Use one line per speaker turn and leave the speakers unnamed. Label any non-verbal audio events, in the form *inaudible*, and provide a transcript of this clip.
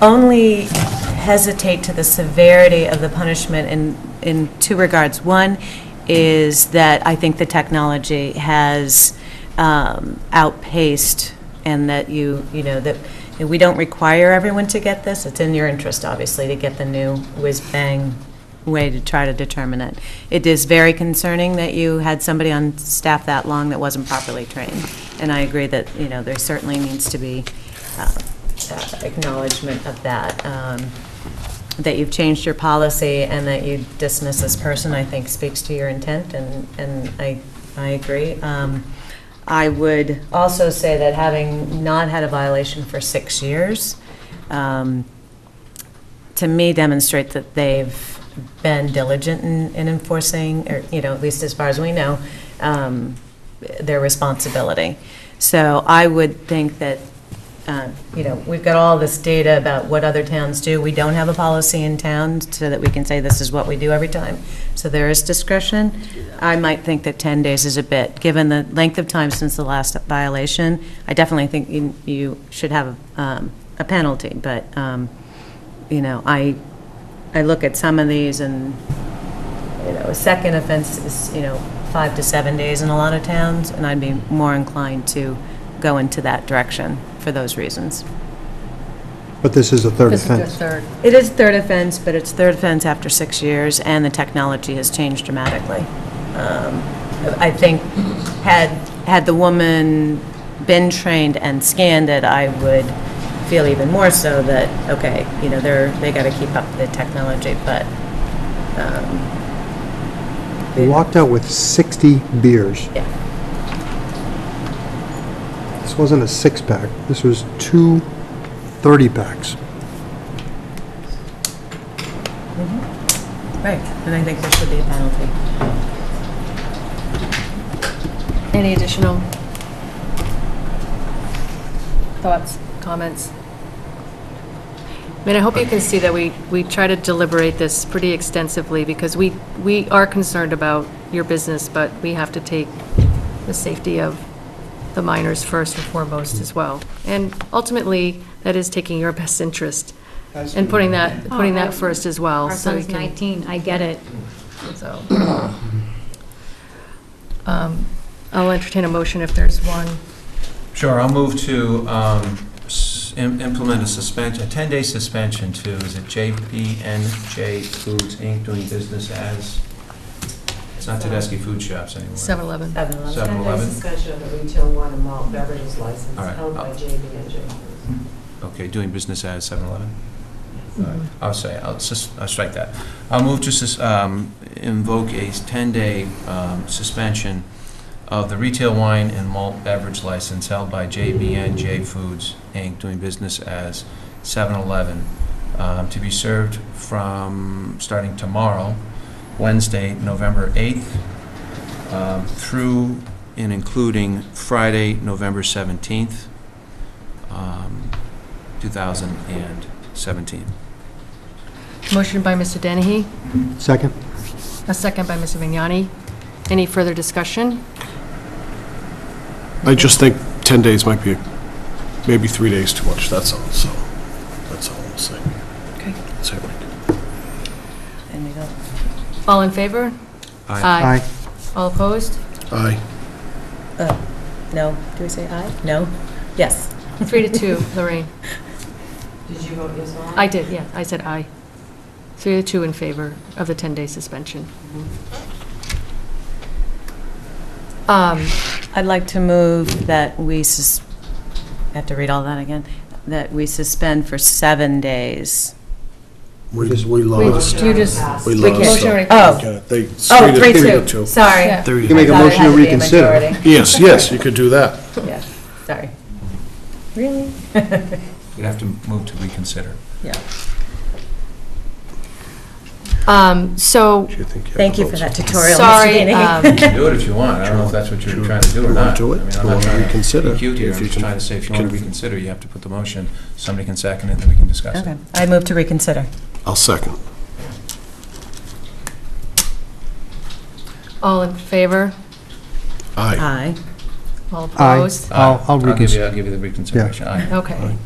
only hesitate to the severity of the punishment in, in two regards. One is that I think the technology has um, outpaced, and that you, you know, that we don't require everyone to get this. It's in your interest, obviously, to get the new whiz-bang way to try to determine it. It is very concerning that you had somebody on staff that long that wasn't properly trained. And I agree that, you know, there certainly needs to be uh, uh, acknowledgement of that. um, That you've changed your policy and that you dismiss this person, I think speaks to your intent, and, and I, I agree. Um, I would also say that having not had a violation for six years, um, to me demonstrate that they've been diligent in in enforcing, or, you know, at least as far as we know, um, their responsibility. So I would think that, uh, you know, we've got all this data about what other towns do. We don't have a policy in town so that we can say this is what we do every time. So there is discretion. I might think that 10 days is a bit, given the length of time since the last violation. I definitely think you- you should have um, a penalty, but, um, you know, I, I look at some of these and, you know, a second offense is, you know, five to seven days in a lot of towns, and I'd be more inclined to go into that direction for those reasons.
But this is a third
This is the
offense.
third.
It is third offense, but it's third offense after six years, and the technology has changed dramatically. Um, I think, had, had the woman been trained and scanned it, I would feel even more so that, okay, you know, they're, they got to keep up the technology, but
We walked out with 60 beers.
Yeah.
This wasn't a six-pack, this was two 30-packs.
Right, and I think there should be a penalty.
Any additional thoughts, comments? I mean, I hope you can see that we, we try to deliberate this pretty extensively, because we, we are concerned about your business, but we have to take the safety of the minors first and foremost as well. And ultimately, that is taking your best interest, and putting that, putting that first as well.
Oh, Our
so we
son's
can-
19, I get it.
so. Um, I'll entertain a motion if there's one.
Sure, I'll move to um, s- im- implement a suspension, a 10-day suspension to, is it JPNJ Foods Inc., doing business as, it's not Tedeschi Food Shops anymore.
7-Eleven.
Seven.
7-Eleven?
Suspension of the retail wine and malt beverages license
All right.
held by JB and J.
Okay, doing business as 7-Eleven? All right, I'll say, I'll sus- I'll strike that. I'll move to sus- um, invoke a 10-day um, suspension of the retail wine and malt beverage license held by JBNJ Foods, Inc., doing business as 7-Eleven, um, to be served from, starting tomorrow, Wednesday, November 8th, um, through and including Friday, November 17th, um, 2017.
Motion by Mr. Dennehy,
Second?
a second by Mr. Vignani. Any further discussion?
I just think 10 days might be, maybe three days too much, that's all, so, that's all I'm saying.
Okay.
Sorry, Mike.
And we don't
All in favor?
Uh,
Aye.
All opposed?
Aye.
No, do we say aye? No? Yes.
Three
*laughs*
to two, Lorraine.
Did you vote yes on?
I did, yeah, I said aye. Three to two in favor of the 10-day suspension.
Mm-hmm.
Um,
I'd like to move that we, sus- I have to read all that again, that we suspend for seven days.
We we
Wait,
lost.
you just,
We
we can't.
lost.
Motion already
Oh,
Okay, They.
oh,
they
three,
did
two,
it too.
sorry.
Yeah.
You can make a
Thought it
motion
had
to
to be a
reconsider.
majority.
Yes, yes, you could do that.
*laughs* Yeah, sorry. Really?
You'd have to move to reconsider.
Yeah.
Um, So,
Do you think you have
Thank
the
you for that
votes?
tutorial, Mr.
sorry, um,
Danny.
Do it if you want, I don't know if that's what you were trying to do or
You wanna
not.
do it?
I mean,
You
I'm not
wanna
trying to be
reconsider?
cute here.
If
I'm
you
just
can-
trying to say, if you want to
can-
reconsider, you have to put the motion, somebody can second it, then we can
*laughs*
discuss
Okay,
it.
I move to reconsider.
I'll second.
um, all in favor?
Aye.
Aye.
All
Aye.
opposed?
I'll- I'll
give you-
reconsider.
I'll give you the reconsideration. Aye.
*laughs* Okay.